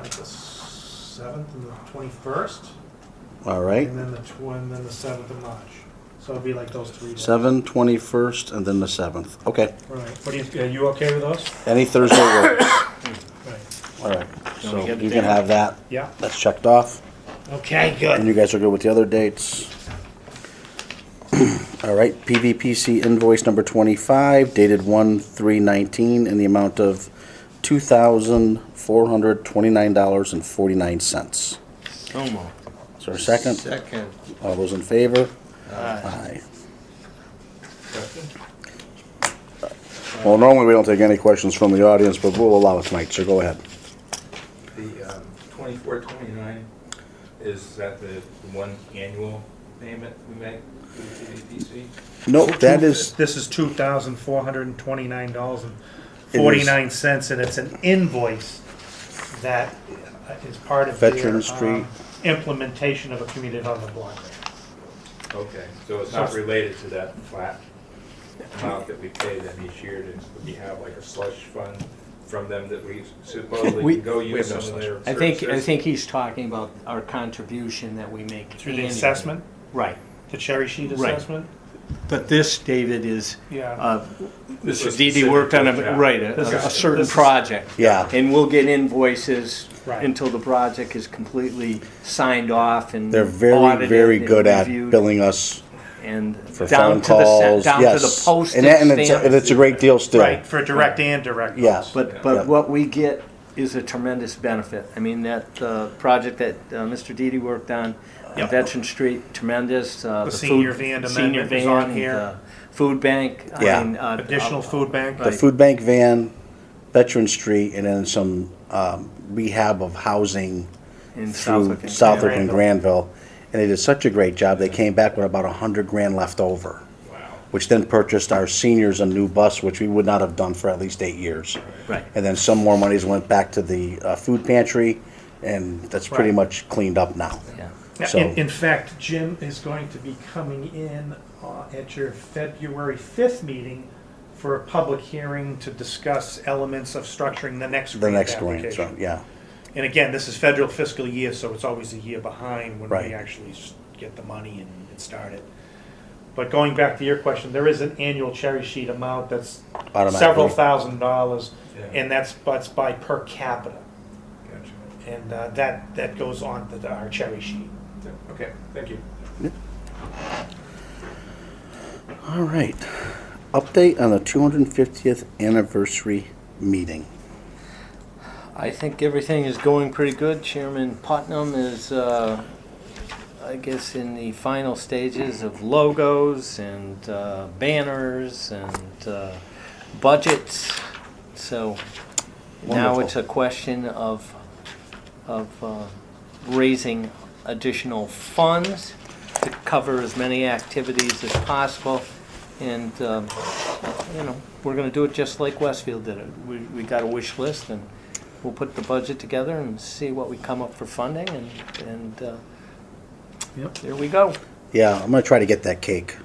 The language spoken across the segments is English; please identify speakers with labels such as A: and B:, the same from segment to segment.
A: like the seventh and the twenty-first,
B: All right.
A: and then the tw- and then the seventh of March. So it'd be like those three days.
B: 7, 21st, and then the 7th. Okay.
A: Right. What do you, are you okay with those?
B: Any Thursday works.
A: Right.
B: All right. So
C: we get
B: you
C: the
B: can
C: date.
B: have that.
A: Yeah.
B: That's checked off.
A: Okay.
B: And
A: Good.
B: you guys are good with the other dates. All right, PVPC invoice number 25 dated 1/3/19 in the amount of $2,429.49.
C: So moved.
B: Is there a second?
D: Second.
B: All those in favor?
C: Aye.
B: Aye. Well, normally we don't take any questions from the audience, but we'll allow it tonight, so go ahead.
D: The um, twenty-four, twenty-nine, is that the one annual payment we make to the CDPC?
B: No, that is,
A: This is two thousand four hundred and twenty-nine dollars and
B: It is-
A: forty-nine cents, and it's an invoice that is part of their,
B: Veterans Street.
A: um, implementation of a community development block. grant.
D: Okay, so it's not related to that flat amount that we pay them each year, and we have like a slush fund from them that we supposedly
E: We-
D: can go
C: we
D: use
C: have no
D: some of
C: slush.
D: their
E: I think, I
D: services.
E: think he's talking about our contribution that we make.
A: Through the
E: annually.
A: assessment,
E: Right,
A: the cherry sheet
E: Right.
A: assessment.
E: but this, David, is,
A: Yeah.
E: uh,
D: This
E: Mr.
D: was
E: Didi worked on
D: specific,
E: a,
D: yeah.
E: right, a-
A: This
E: a,
A: is-
E: a certain
A: this is-
E: project.
B: yeah,
E: And we'll get invoices
A: Right.
E: until the project is completely signed off and
B: they're very,
E: audited
B: very
E: and
B: good at
E: reviewed
B: billing us
E: And
B: for phone
E: down to the,
B: calls,
E: cent-
B: yes.
E: down to the
B: And that- and
E: postage
B: it's a- And
E: stamp.
B: it's a great deal still.
A: Right, for direct and direct.
B: Yeah.
A: loans.
E: But,
B: Yeah.
E: but what we get is a tremendous benefit. I mean, that, uh, project that, uh, Mr. Didi worked on, on
A: Yeah.
E: Veteran Street, tremendous, uh.
A: The
E: food-
A: senior van
E: senior
A: amendment is on
E: van,
A: here.
E: uh, Food bank. I
B: Yeah.
E: mean, uh,
A: Additional
E: uh,
A: food bank.
B: The food bank van, Veteran Street, and then some um, rehab of housing
E: In
B: through
E: Southwick.
B: Southwick and
A: Granville.
B: Granville. And they did such a great job, they came back with about a hundred grand left over,
D: Wow.
B: which then purchased our seniors a new bus, which we would not have done for at least eight years.
E: Right.
B: And then some more monies went back to the uh, food pantry, and that's pretty
A: Right.
B: much cleaned up now.
E: Yeah.
A: Yeah,
B: So-
A: In, in fact, Jim is going to be coming in uh, at your February 5th meeting for a public hearing to discuss elements of structuring the next
B: The
A: grant
B: next grant, so,
A: application.
B: yeah.
A: And again, this is federal fiscal year, so it's always a year behind when
B: Right.
A: we actually s- get the money and and start it. But going back to your question, there is an annual cherry sheet amount that's several
B: automatically.
A: thousand dollars,
D: Yeah.
A: and that's, that's by per capita.
D: Gotcha.
A: And uh, that, that goes on to the- our cherry sheet.
D: Yeah, Okay, thank you.
B: All right. Update on the 250th anniversary meeting.
E: I think everything is going pretty good. Chairman Putnam is, uh, I guess, in the final stages of logos and uh, banners and uh, budgets. So now
B: Wonderful.
E: it's a question of of uh, raising additional funds to cover as many activities as possible. And, um, you know, we're going to do it just like Westfield did it. We, we got a wish list and we'll put the budget together and see what we come up for funding and, and uh,
A: Yep.
E: there we go.
B: Yeah, I'm gonna try to get that cake.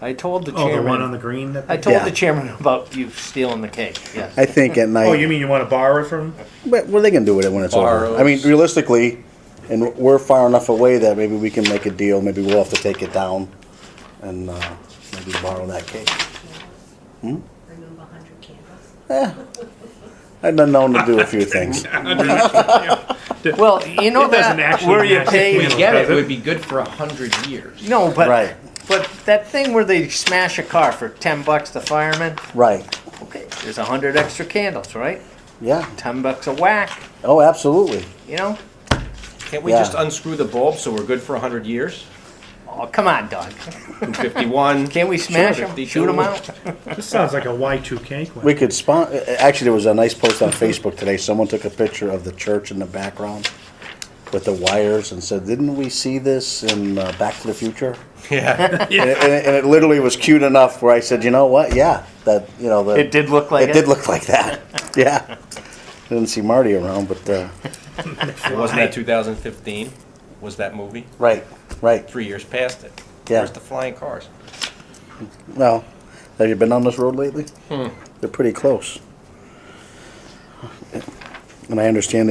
E: I told the
A: Oh, the one on
E: chairman,
A: the green that
E: I
A: they-
E: told
B: Yeah.
E: the chairman about you stealing the cake, yes.
B: I think at night.
A: Oh, you mean you want to borrow it from?
B: But, well, they can do it when it's over. I mean,
E: Borrows.
B: realistically, and we're far enough away that maybe we can make a deal. Maybe we'll have to take it down and uh, maybe borrow that cake.
F: remove a hundred candles.
B: I've been known to do a few things.
E: Well, you know
A: It doesn't
E: that,
A: actually
E: where you
A: match the
E: pay.
A: candle.
C: Get it, it would be good for a hundred years.
E: No, but
B: Right.
E: but that thing where they smash a car for ten bucks to firemen,
B: Right.
E: okay, there's a hundred extra candles, right?
B: Yeah.
E: Ten bucks a whack,
B: Oh, absolutely.
E: you know?
C: Can't we
B: Yeah.
C: just unscrew the bulb so we're good for a hundred years?
E: Oh, come on, Doug.
C: Fifty-one.
E: Can't we smash
C: Sure,
E: them?
C: they
E: Shoot
C: do.
E: them out?
A: This sounds like a Y2K
B: We
A: question.
B: could spawn. Actually, there was a nice post on Facebook today. Someone took a picture of the church in the background with the wires and said, "Didn't we see this in uh, Back to the Future?"
C: Yeah.
B: And, it, and, it, and it literally was cute enough where I said, "You know what? Yeah, that you know the
E: It did look like
B: it
E: it.
B: did look like that. Yeah. Didn't see Marty around, but, uh,
C: Wasn't that two thousand fifteen? Was that movie?
B: right, right.
C: Three years past it.
B: Yeah.
C: Where's the flying cars?
B: Well, have you been on this road lately? They're pretty close. And I understand